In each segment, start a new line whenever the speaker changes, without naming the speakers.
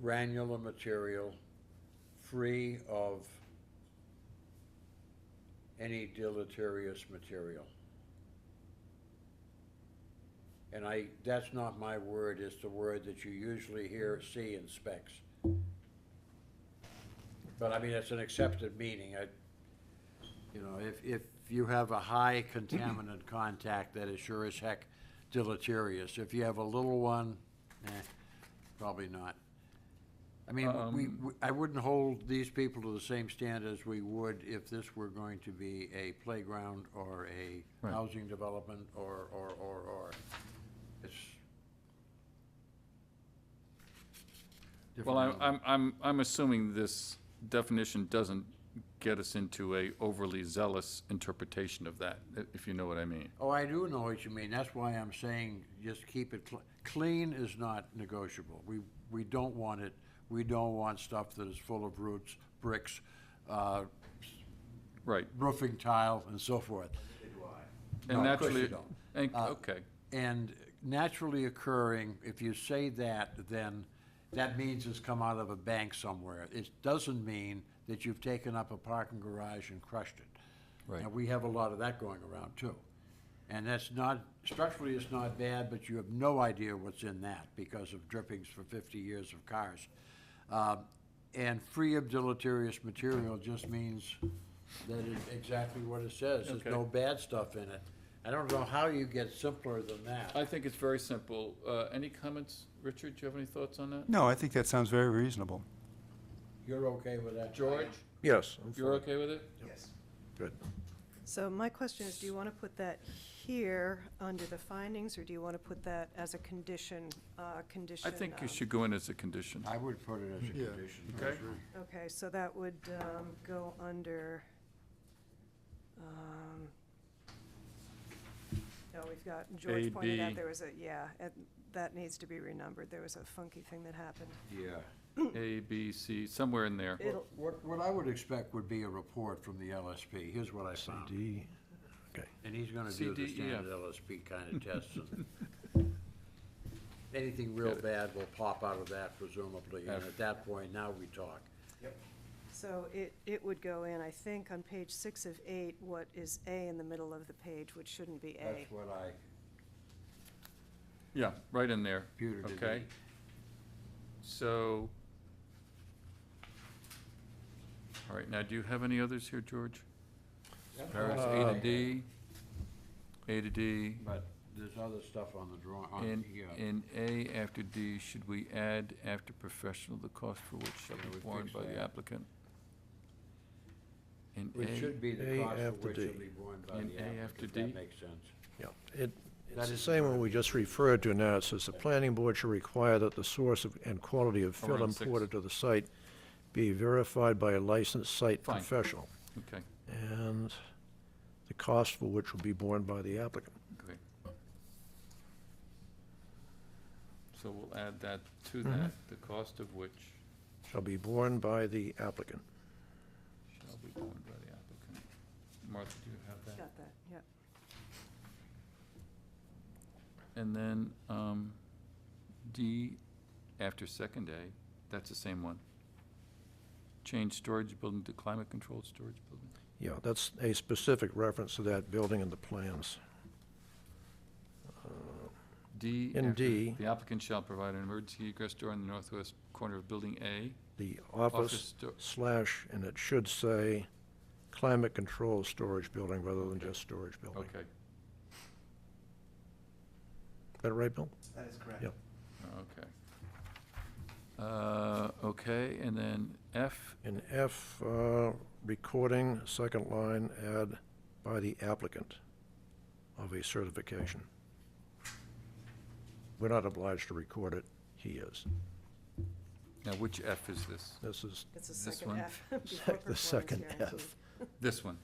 granular material, free of any deleterious material. And I, that's not my word, it's the word that you usually hear, see in specs. But I mean, it's an accepted meaning, I, you know, if, if you have a high contaminant contact, that is sure as heck deleterious. If you have a little one, eh, probably not. I mean,
Um,
we, we- I wouldn't hold these people to the same standard as we would if this were going to be a playground or a
Right.
housing development or, or, or, or. It's.
Well, I-
different.
I'm, I'm, I'm assuming this definition doesn't get us into a overly zealous interpretation of that, i- if you know what I mean.
Oh, I do know what you mean. That's why I'm saying just keep it cl- clean is not negotiable. We, we don't want it, we don't want stuff that is full of roots, bricks, uh,
Right.
roofing tile and so forth.
And
No, of course
naturally-
you don't.
and-
Uh,
okay,
And naturally occurring, if you say that, then that means it's come out of a bank somewhere. It doesn't mean that you've taken up a parking garage and crushed it.
Right.
Now, we have a lot of that going around too. And that's not, structurally it's not bad, but you have no idea what's in that because of drippings for fifty years of cars. Um, And free of deleterious material just means that it's exactly what it says. There's
Okay.
no bad stuff in it. I don't know how you get simpler than
I
that.
think it's very simple. Uh, Any comments? Richard, do you have any thoughts on that?
No, I think that sounds very reasonable.
You're okay with that?
George,
Yes. I'm
you're
fine.
okay with it?
Good.
So my question is, do you want to put that here under the findings, or do you want to put that as a condition, uh,
I
condition?
think you
um,
should go in as a condition.
I would put it as a condition.
Okay.
Okay, so that would um, go under, um, no, we've got, George pointed
AD.
out there was a, yeah, and that needs to be renumbered. There was a funky thing that happened.
Yeah.
A, B, C, somewhere in there.
It'll,
What, what I would expect would be a report from the LSP. Here's what I found.
D.
And he's gonna do the
CDEF.
standard LSP kind of tests and anything real bad will pop out of that presumably, and at that point, now we talk.
so it, it would go in, I think, on page six of eight, what is A in the middle of the page, which shouldn't be A.
That's what I,
Yeah, right in there.
Computer did
Okay.
it.
So. All right, now, do you have any others here, George? Paris, A to Uh, E D, A to D,
but there's other stuff on the draw, on
and,
here.
and A after D, should we add after professional, the cost for which shall
Yeah,
be
we
borne
fixed
by the
that.
applicant? And
Which should
A,
be the
A
cost for
after
which it'll
D.
be borne by
And
the
A
applicant,
after
if
D?
that makes sense.
Yeah, it,
That
it's the
is
same one we just referred to now. It says the planning board should require that the source of- and quality of
Or
fill
on six.
imported to the site be verified by a licensed site
Fine.
professional,
okay,
and the cost for which will be borne by the applicant.
great. So we'll add that to that, the cost of which.
Shall be borne by the applicant.
Shall be borne by the applicant. Martha, do you have that?
Got that, yep.
And then, um, D, after second A, that's the same one. Change storage building to climate-controlled storage building.
Yeah, that's a specific reference to that building in the plans.
D.
In
after,
D.
The applicant shall provide an emergency egress door in the northwest corner of building A.
The office
sto-
slash, and it should say climate control storage building rather than just storage building.
Okay,
Is that right, Bill?
That is correct.
Yep.
okay. Uh, okay, and then F,
In F, uh, recording, second line, add by the applicant of a certification. We're not obliged to record it, he is.
now which F is this?
This is
It's the
This
second
one?
F. before
the
performance
second
guarantee.
F.
This one,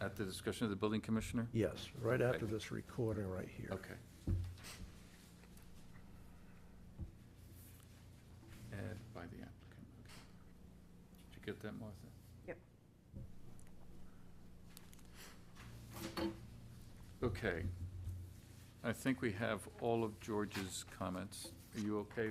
at the discretion of the building commissioner?
Yes, right after
Okay.
this recording right here.
Okay. Add by the applicant, okay. Did you get that, Martha?
Yep.
Okay. I think we have all of George's comments. Are you okay